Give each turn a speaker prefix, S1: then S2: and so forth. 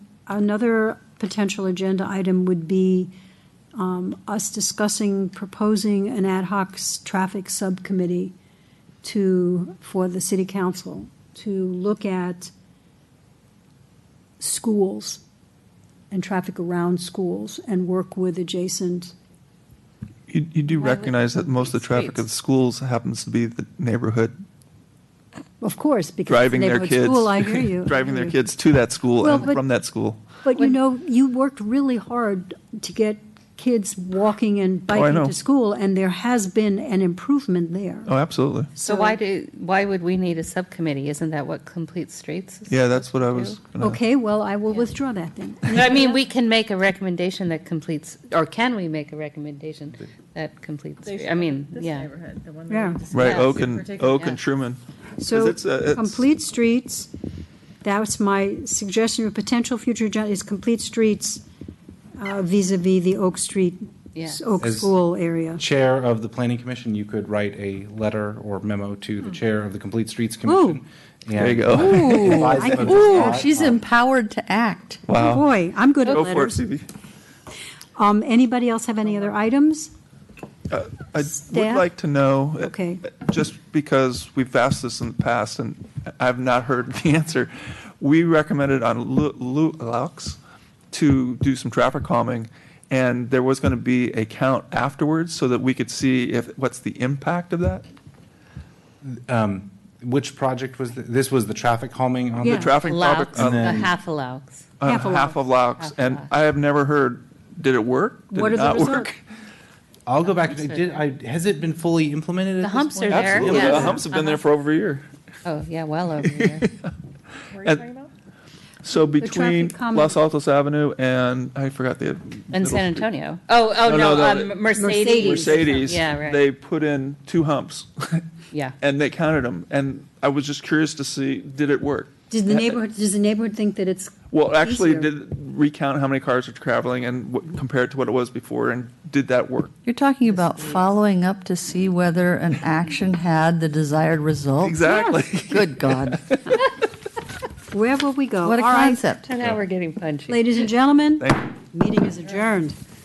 S1: Another potential agenda item would be um, us discussing, proposing an ad hoc s- traffic subcommittee to, for the city council, to look at schools and traffic around schools and work with adjacent,
S2: You, you do
S3: Why would-
S2: recognize that most of the traffic at
S3: Streets.
S2: schools happens to be the neighborhood
S1: of course, because it's a
S2: driving their
S1: neighborhood
S2: kids.
S1: school, I hear you. I
S2: Driving
S1: hear
S2: their
S1: you.
S2: kids to that school
S1: Well,
S2: and
S1: but-
S2: from that school.
S1: But you know, you worked really hard to get kids walking and
S2: Oh, I
S1: biking
S2: know.
S1: to school, and there has been an improvement there.
S2: Oh, absolutely.
S3: So why do, why would we need a subcommittee? Isn't that what Complete Streets? is
S2: Yeah, that's what I
S3: supposed
S2: was.
S3: to do?
S2: gonna-
S1: Okay, well, I will withdraw that then.
S3: I mean, we can make a recommendation that completes, or can we make a recommendation that completes,
S4: They should
S3: I mean,
S4: This
S3: yeah.
S4: neighborhood, the one
S1: Yeah.
S4: that we discussed.
S2: Right,
S3: Yes,
S2: Oak
S4: in
S2: and,
S4: particular.
S2: Oak
S3: yeah.
S2: and Truman.
S1: So,
S2: it's, uh, it's-
S1: complete streets, that's my suggestion of potential future agenda, is complete streets uh, vis-à-vis the Oak Street,
S3: Yeah.
S1: Oak
S5: As-
S1: School area.
S5: chair of the planning commission, you could write a letter or memo to the chair of the Complete Streets Commission.
S2: There you go.
S1: Ooh, I can do that.
S6: She's empowered to act.
S1: Oh,
S2: Wow.
S1: Boy, I'm good at
S2: Go for it,
S1: letters.
S2: Stevie.
S1: Um, Anybody else have any other items?
S2: I would
S1: Staff?
S2: like to know. uh,
S1: Okay.
S2: Just because we've asked this in the past and I've not heard the answer. We recommended on Lu- Lu- Laux to do some traffic calming. And there was going to be a count afterwards so that we could see if, what's the impact of that?
S5: Which project was, th- this was the traffic calming on
S1: Yeah.
S5: the, tra-
S2: Traffic.
S3: Allows,
S2: traffic- uh,
S3: the
S5: then-
S3: half allows.
S2: uh,
S1: Half a lox.
S2: Half of Laux.
S3: Half a
S2: And
S3: lox.
S2: I have never heard, did it work? Did
S1: What
S2: it
S1: are the
S2: not
S1: results?
S2: work?
S5: I'll go back, did, I, has it been fully implemented at
S3: The
S5: this
S3: humps
S5: point?
S3: are there.
S2: Absolutely.
S3: yeah.
S2: The humps have been there for over a year.
S3: Oh, yeah, well over there.
S4: What were you
S2: And-
S4: talking about?
S2: So
S1: traffic
S2: between
S1: calming-
S2: Los Altos Avenue and, I forgot the.
S3: In
S2: middle
S3: San
S2: street.
S3: Antonio. Oh,
S2: No,
S3: oh,
S2: no,
S3: no,
S2: no,
S3: um, Mercedes.
S2: Mercedes,
S3: Yeah, right,
S2: they put in two humps
S3: yeah.
S2: and they counted them. And I was just curious to see, did it work?
S1: Does the neighborhood, does the neighborhood think that it's
S2: Well, actually,
S1: Easier.
S2: did it recount how many cars are traveling and what, compared to what it was before, and did that work?
S6: You're talking about following up to see whether an action had the desired result?
S2: Exactly.
S6: Good God.
S1: Where will we go?
S6: What a
S1: All right,
S6: concept.
S3: So now we're getting punchy.
S1: Ladies and gentlemen,
S2: Thank you.
S1: meeting is adjourned.